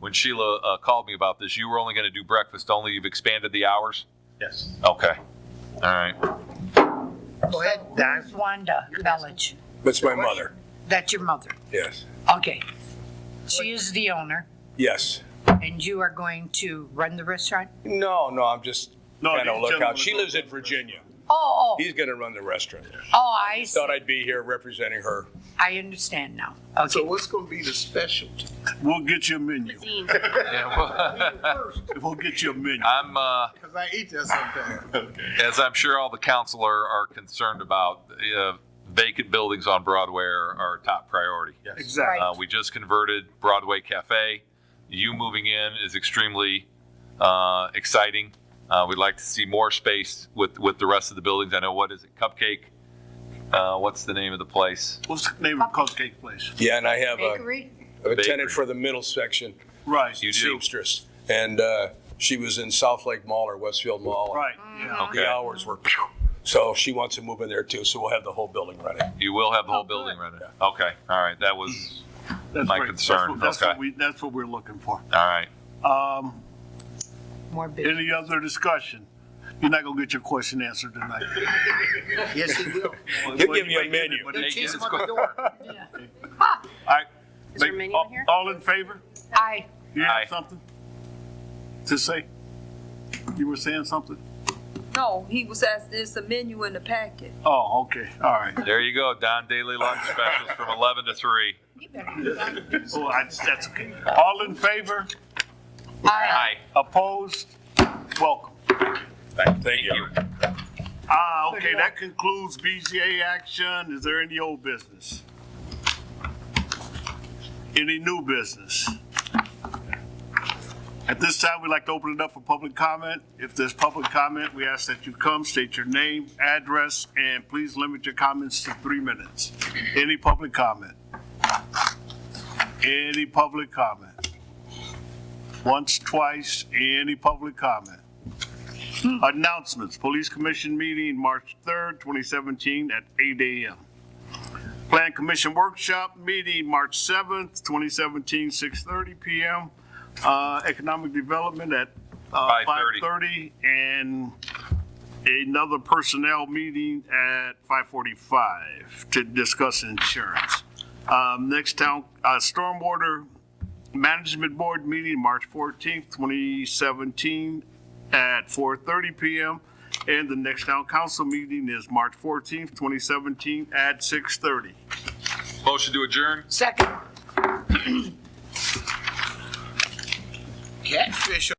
when Sheila uh, called me about this, you were only going to do breakfast only. You've expanded the hours. Yes. Okay. All right. Go ahead, Don. Who's Wanda Melich? That's my mother. That's your mother. Yes. Okay. She is the owner Yes. and you are going to run the restaurant? No, no, I'm just No, kind of these look gentlemen out. She don't lives in run Virginia. Oh, oh, He's going to run the restaurant. oh, I see. Thought I'd be here representing her. I understand now. Okay. So what's gonna be the specialty? We'll get you a menu. cuisine. Yeah, well, We'll get you a menu. I'm, uh, Cause I eat that sometimes. as I'm sure all the council are, are concerned about, uh, vacant buildings on Broadway are, are a top priority. Exactly. Uh, we just converted Broadway Cafe. You moving in is extremely uh, exciting. Uh, we'd like to see more space with, with the rest of the buildings. I know what is it, Cupcake? Uh, what's the name of the place? What's the name of the cupcake place? Yeah, and I have a, Bakery? a Bakery. tenant for the middle section, Right. You do. seamstress. And uh, she was in South Lake Mall or Westfield Mall. Right, yeah. The hours were, phew. so she wants to move in there too, so we'll have the whole building running. You will have the whole building rented. Okay. All right. That was That's My great. That's concern, what- That's what okay. we, that's what we're looking for. all right. Um, More business. any other discussion? You're not gonna get your question answered tonight. Yes, he will. You'll give me a menu. All Hey, She's it's at go- the door. right. Is there a menu in here? All in favor? Aye. You Aye. have something to say? You were saying something? No, he was asked, there's a menu in the packet. Oh, okay, all right. There you go. Don Daily Lunch Specials from 11 to 3. You better. Oh, I, that's okay. All in favor? Aye. Hi. Opposed? Welcome. Thank you. Ah, okay, that concludes BZA action. Is there any old business? Any new business? At this time, we'd like to open it up for public comment. If there's public comment, we ask that you come, state your name, address, and please limit your comments to three minutes. Any public comment? Any public comment? Once, twice, any public comment? Announcements, Police Commission meeting, March 3rd, 2017 at 8 AM. Plan Commission Workshop meeting, March 7th, 2017, 6:30 PM. Uh, Economic Development at uh, 5:30. 5:30 and another personnel meeting at 5:45 to discuss insurance. Um, Next town, uh, Stormwater Management Board meeting, March 14th, 2017 at 4:30 PM. And the next town council meeting is March 14th, 2017 at 6:30. Motion to adjourn. Second. Catfish